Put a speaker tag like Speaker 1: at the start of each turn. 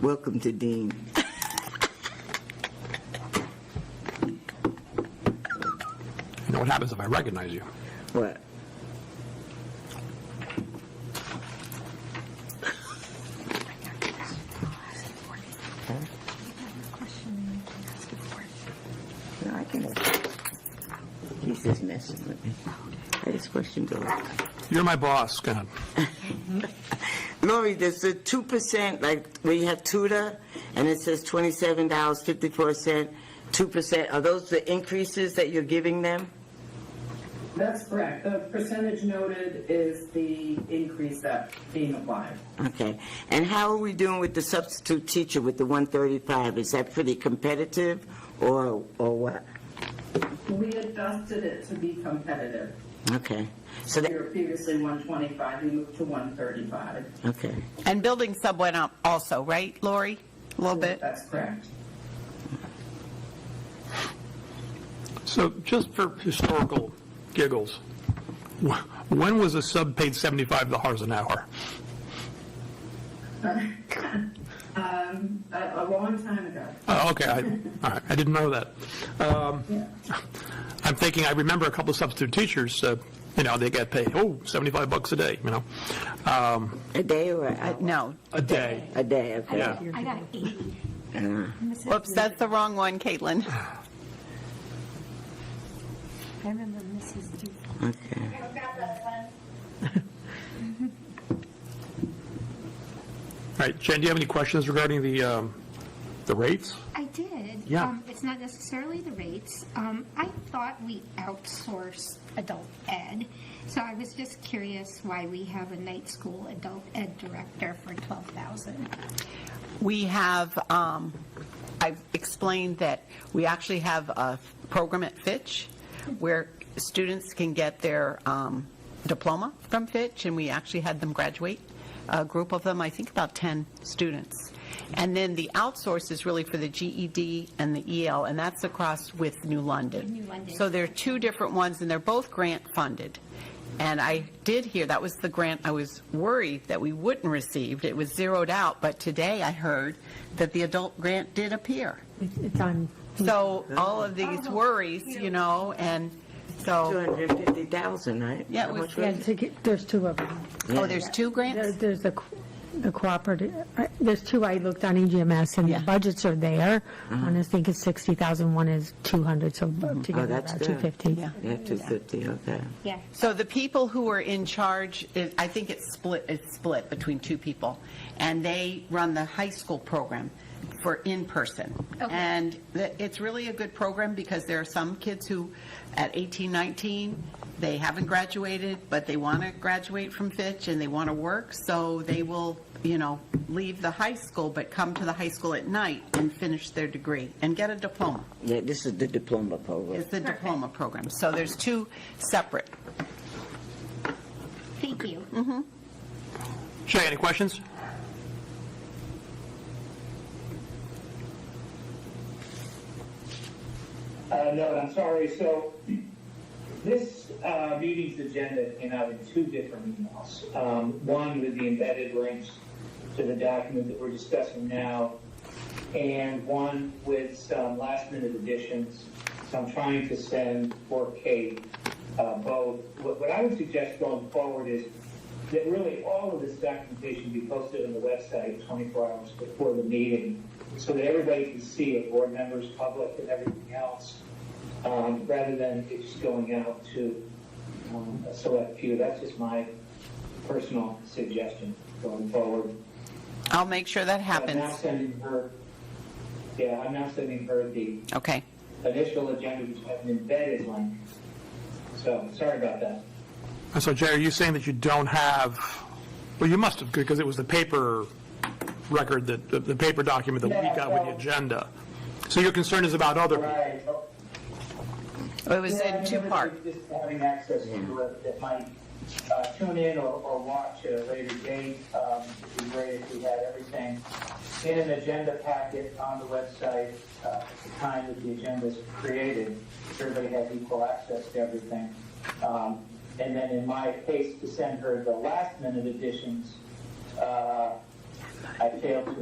Speaker 1: Welcome to Dean.
Speaker 2: You know what happens if I recognize you?
Speaker 1: What? No, I can. He's just messing with me. I just questioned Lori.
Speaker 2: You're my boss, go ahead.
Speaker 1: Lori, there's a two percent, like, where you have tutor, and it says twenty-seven dollars fifty-four cent, two percent. Are those the increases that you're giving them?
Speaker 3: That's correct. The percentage noted is the increase that's being applied.
Speaker 1: Okay, and how are we doing with the substitute teacher with the 135? Is that pretty competitive, or, or what?
Speaker 3: We adjusted it to be competitive.
Speaker 1: Okay, so
Speaker 3: We
Speaker 1: that,
Speaker 3: were previously 125, we moved to 135.
Speaker 1: okay,
Speaker 4: And building sub went up also, right, Lori? A little bit?
Speaker 3: That's correct.
Speaker 2: So just for historical giggles, wh- when was a sub paid $75 an hour?
Speaker 3: Um, A a long time ago.
Speaker 2: Oh, okay, I, all right, I didn't know that. Um, I'm thinking, I remember a couple of substitute teachers, uh, you know, they got paid, oh, 75 bucks a day, you know, um,
Speaker 1: a day or an hour?
Speaker 4: No.
Speaker 2: a day.
Speaker 1: A day, okay.
Speaker 2: Yeah.
Speaker 5: I got an 80. Mrs.
Speaker 4: Whoops, that's the wrong one, Caitlin.
Speaker 5: I remember Mrs. D.
Speaker 1: Okay.
Speaker 2: All right, Jen, do you have any questions regarding the, um, the rates?
Speaker 5: I did.
Speaker 2: Yeah.
Speaker 5: Um, It's not necessarily the rates. Um, I thought we outsourced adult ed, so I was just curious why we have a night school adult ed director for 12,000.
Speaker 4: We have, um, I've explained that we actually have a program at Fitch where students can get their um, diploma from Fitch, and we actually had them graduate, a group of them, I think about 10 students. And then the outsource is really for the GED and the EL, and that's across with New London.
Speaker 5: New London.
Speaker 4: So there are two different ones, and they're both grant-funded. And I did hear, that was the grant I was worried that we wouldn't receive. It was zeroed out, but today I heard that the adult grant did appear.
Speaker 6: It's on,
Speaker 4: So all of these worries, you know, and so,
Speaker 1: 250,000, right?
Speaker 4: Yeah,
Speaker 1: How
Speaker 4: we-
Speaker 1: much
Speaker 6: yeah,
Speaker 1: was it?
Speaker 6: to get- there's two of them.
Speaker 4: oh, there's two
Speaker 6: There-
Speaker 4: grants?
Speaker 6: There's the co- the cooperative, I- there's two I looked on E EGMS, and the
Speaker 4: Yeah.
Speaker 6: budgets are there. One is, I think is 60,000, one is 200, so together
Speaker 1: that's
Speaker 6: about
Speaker 1: good.
Speaker 6: 250.
Speaker 4: Yeah.
Speaker 1: Yeah, 250, okay.
Speaker 5: Yeah.
Speaker 4: So the people who were in charge, it- I think it's split, it's split between two people, and they run the high school program for in-person.
Speaker 5: Okay.
Speaker 4: And the- it's really a good program because there are some kids who, at 18, 19, they haven't graduated, but they want to graduate from Fitch and they want to work, so they will, you know, leave the high school, but come to the high school at night and finish their degree and get a diploma.
Speaker 1: Yeah, this is the diploma program.
Speaker 4: It's the diploma program. So there's two separate.
Speaker 5: Thank you.
Speaker 2: Shay, any questions?
Speaker 7: Uh, No, I'm sorry. So this uh, meeting's agenda came out in two different emails. Um, One with the embedded links to the document that we're discussing now, and one with some last-minute additions. So I'm trying to send for Kate uh, both. What what I would suggest going forward is that really all of this documentation be posted on the website 24 hours before the meeting, so that everybody can see it, board members, public, and everything else, um, rather than it just going out to um, a select few. That's just my personal suggestion going forward.
Speaker 4: I'll make sure that
Speaker 7: I'm now
Speaker 4: happens.
Speaker 7: sending her, yeah, I'm now sending her the
Speaker 4: Okay.
Speaker 7: initial agenda, which has an embedded link. So, sorry about that.
Speaker 2: And So Jay, are you saying that you don't have, well, you must have, because it was the paper record, that the- the paper document that we got with the agenda. So your concern is about other people?
Speaker 7: Right.
Speaker 4: It was in two parts.
Speaker 7: Just having access to it that might uh, tune in or, or watch at a later date. Um, it'd be great if we had everything in an agenda packet on the website uh, at the time that the agenda is created. Everybody has equal access to everything. Um, and then in my case, to send her the last minute additions, uh, I failed to